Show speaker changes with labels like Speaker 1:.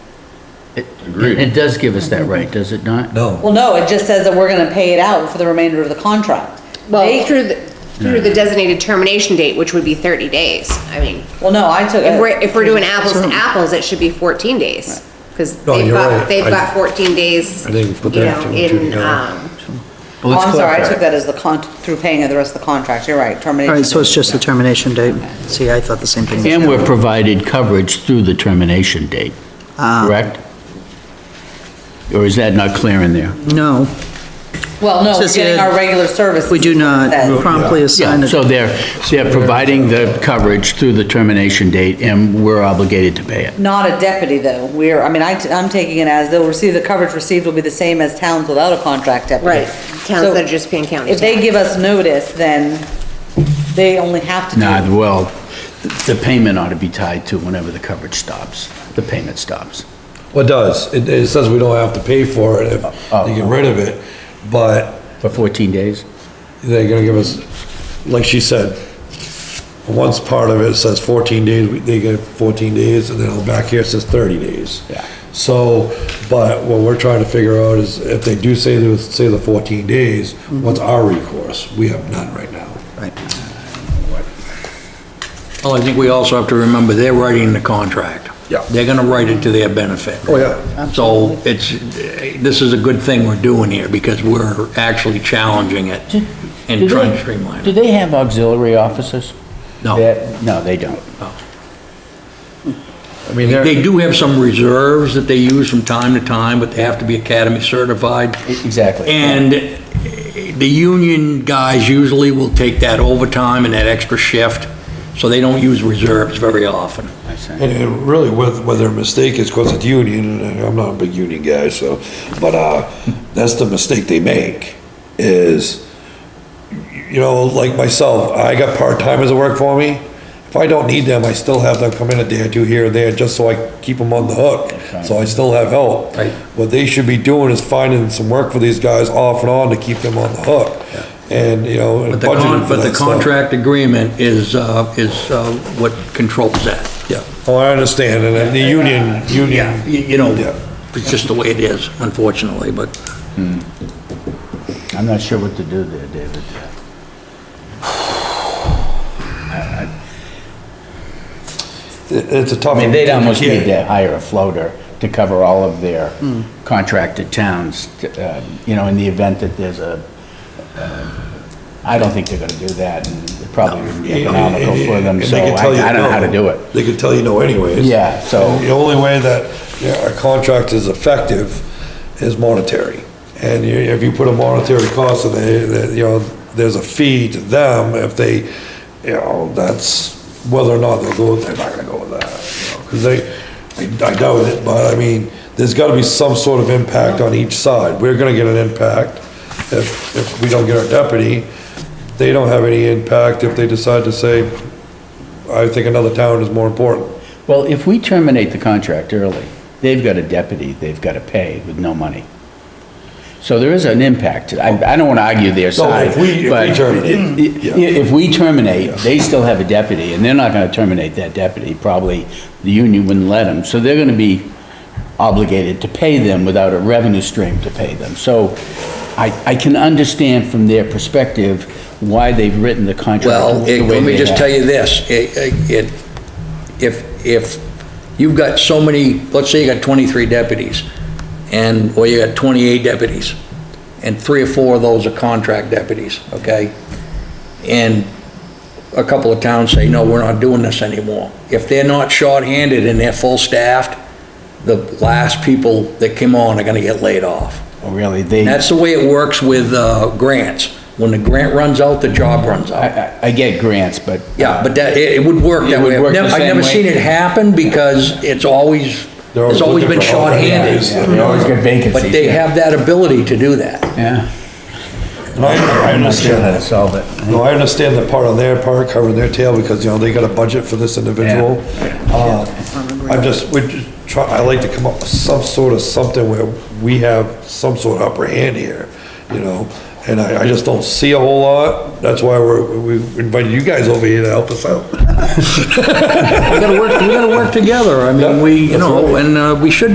Speaker 1: It-
Speaker 2: Agreed.
Speaker 1: It does give us that right, does it not?
Speaker 3: No,
Speaker 4: Well, no, it just says that we're gonna pay it out for the remainder of the contract.
Speaker 5: Well,
Speaker 4: They-
Speaker 5: through the, through the designated termination date, which would be 30 days. I mean,
Speaker 4: Well, no, I took.
Speaker 5: if we're, if we're doing apples to apples, it should be 14 days. Because
Speaker 3: No,
Speaker 5: they've
Speaker 3: you're
Speaker 5: got,
Speaker 3: right.
Speaker 5: they've
Speaker 3: I-
Speaker 5: got 14 days,
Speaker 3: I
Speaker 5: you
Speaker 3: didn't put that
Speaker 5: know,
Speaker 3: two and two
Speaker 5: in,
Speaker 3: together.
Speaker 5: um,
Speaker 1: Well,
Speaker 4: Oh,
Speaker 1: let's
Speaker 4: I'm sorry, I
Speaker 1: clarify.
Speaker 4: took that as the con, through paying of the rest of the contract, you're right, termination.
Speaker 6: All right, so it's just the
Speaker 4: term.
Speaker 6: termination date. See, I thought the same thing.
Speaker 1: And we're provided coverage through the termination date,
Speaker 6: Ah.
Speaker 1: correct? Or is that not clear in there?
Speaker 6: No,
Speaker 4: Well, no, we're
Speaker 6: Says
Speaker 4: getting
Speaker 6: here,
Speaker 4: our regular services.
Speaker 6: we do not
Speaker 4: That-
Speaker 6: promptly assign
Speaker 1: Yeah,
Speaker 6: it.
Speaker 1: so they're, they're providing the coverage through the termination date, and we're obligated to pay it.
Speaker 4: Not a deputy, though, we're, I mean, I, am taking it as they'll receive, the coverage received will be the same as towns without a contract deputy.
Speaker 5: right, towns
Speaker 4: So
Speaker 5: that are just paying county
Speaker 4: If they
Speaker 5: tax.
Speaker 4: give us notice, then they only have to do.
Speaker 1: Nah, well, th- the payment ought to be tied to whenever the coverage stops, the payment stops.
Speaker 3: what does? It, it says we don't have to pay for it if they get rid of it, but
Speaker 1: For 14 days?
Speaker 3: they're gonna give us, like she said, once part of it says fourteen days, we- they get fourteen days, and then back here it says thirty days.
Speaker 1: Yeah.
Speaker 3: So, but what we're trying to figure out is if they do say, the- say the fourteen days, what's our recourse? We have none right now.
Speaker 7: Well, I think we also have to remember, they're writing the contract.
Speaker 3: Yeah.
Speaker 7: They're gonna write it to their benefit.
Speaker 3: Oh, yeah.
Speaker 7: So it's, this is a good thing we're doing here, because we're actually challenging it and trying to streamline
Speaker 1: Do
Speaker 7: it.
Speaker 1: they have auxiliary officers?
Speaker 7: No.
Speaker 1: That- No, they don't.
Speaker 3: I mean, they're.
Speaker 7: They do have some reserves that they use from time to time, but they have to be academy certified.
Speaker 1: E, Exactly.
Speaker 7: And the union guys usually will take that overtime and that extra shift, so they don't use reserves very often.
Speaker 1: I see.
Speaker 3: And it really, with, where their mistake is, because it's union, and uh, I'm not a big union guy, so, but, uh, that's the mistake they make, is, you know, like myself, I got part-timers that work for me. If I don't need them, I still have them come in a day or two here and there, just so I keep them on the hook, so I still have help.
Speaker 7: Right.
Speaker 3: What they should be doing is finding some work for these guys off and on to keep them on the hook, and, you know, and
Speaker 7: But the, con-
Speaker 3: budgeting for
Speaker 7: but the
Speaker 3: that stuff.
Speaker 7: contract agreement is, uh, is uh, what controls that.
Speaker 3: Yeah, oh, I understand, and then the union,
Speaker 7: Yeah,
Speaker 3: union,
Speaker 7: you you know,
Speaker 3: Yeah.
Speaker 7: it's just the way it is, unfortunately, but
Speaker 1: I'm not sure what to do there, David.
Speaker 3: it- it's a tough.
Speaker 1: I mean, they'd almost
Speaker 3: Yeah.
Speaker 1: need to hire a floater to cover all of their contracted towns, uh, you know, in the event that there's a, uh, I don't think they're gonna do that, and it probably wouldn't be economical for them,
Speaker 3: And
Speaker 1: so
Speaker 3: they could
Speaker 1: I
Speaker 3: tell you
Speaker 1: I don't know how
Speaker 3: no.
Speaker 1: to do it.
Speaker 3: They could tell you no anyways.
Speaker 1: Yeah, so-
Speaker 3: The only way that yeah, a contract is effective is monetary. And you- if you put a monetary cost in there, that, you know, there's a fee to them if they, you know, that's whether or not they'll go, they're not gonna go with that. you know, Cause they, I- I doubt it, but I mean, there's gotta be some sort of impact on each side. We're gonna get an impact if, if we don't get our deputy. They don't have any impact if they decide to say, I think another town is more important.
Speaker 1: Well, if we terminate the contract early, they've got a deputy they've gotta pay with no money. So there is an impact. I, I don't wanna argue their side.
Speaker 3: if we- if we
Speaker 1: but
Speaker 3: terminate,
Speaker 1: i- i-
Speaker 3: yeah.
Speaker 1: If we terminate, they still have a deputy, and they're not gonna terminate that deputy, probably the union wouldn't let them. So they're gonna be obligated to pay them without a revenue stream to pay them. So I, I can understand from their perspective why they've written the contract
Speaker 7: Well,
Speaker 1: the
Speaker 7: it-
Speaker 1: way
Speaker 7: let me
Speaker 1: they
Speaker 7: just
Speaker 1: have.
Speaker 7: tell you this, it, it, if, if you've got so many, let's say you got 23 deputies, and, or you got 28 deputies, and three or four of those are contract deputies, okay? And a couple of towns say, no, we're not doing this anymore. If they're not shorthanded and they're full-staffed, the last people that come on are gonna get laid off.
Speaker 1: Oh, Really, they.
Speaker 7: That's the way it works with uh, grants. When the grant runs out, the job runs
Speaker 1: I,
Speaker 7: out.
Speaker 1: I- I get grants, but.
Speaker 7: Yeah, but that, it it would work
Speaker 1: It
Speaker 7: that
Speaker 1: would
Speaker 7: way. I've
Speaker 1: work the
Speaker 7: never- I've
Speaker 1: same
Speaker 7: never
Speaker 1: way.
Speaker 7: seen it happen because it's always,
Speaker 3: They're always
Speaker 7: it's always
Speaker 3: looking
Speaker 7: been
Speaker 3: for
Speaker 7: shorthanded.
Speaker 3: alternatives.
Speaker 1: Yeah, They always get vacancies.
Speaker 7: But they
Speaker 1: yeah.
Speaker 7: have that ability to do that.
Speaker 1: Yeah.
Speaker 3: And I, I
Speaker 1: I'm not sure
Speaker 3: understand
Speaker 1: how to
Speaker 3: that.
Speaker 1: solve it.
Speaker 3: No, I understand the part on their part, covering their tail, because, you know, they got a budget for this individual. Uh, I'm just, we're just try I like to come up with some sort of something where we have some sort of upper hand here, you know? And I, I just don't see a whole lot, that's why we're, we invited you guys over here to help us out.
Speaker 7: We gotta work, we gotta work together. I mean, we, you
Speaker 3: That's
Speaker 7: know,
Speaker 3: right.
Speaker 7: and uh, we should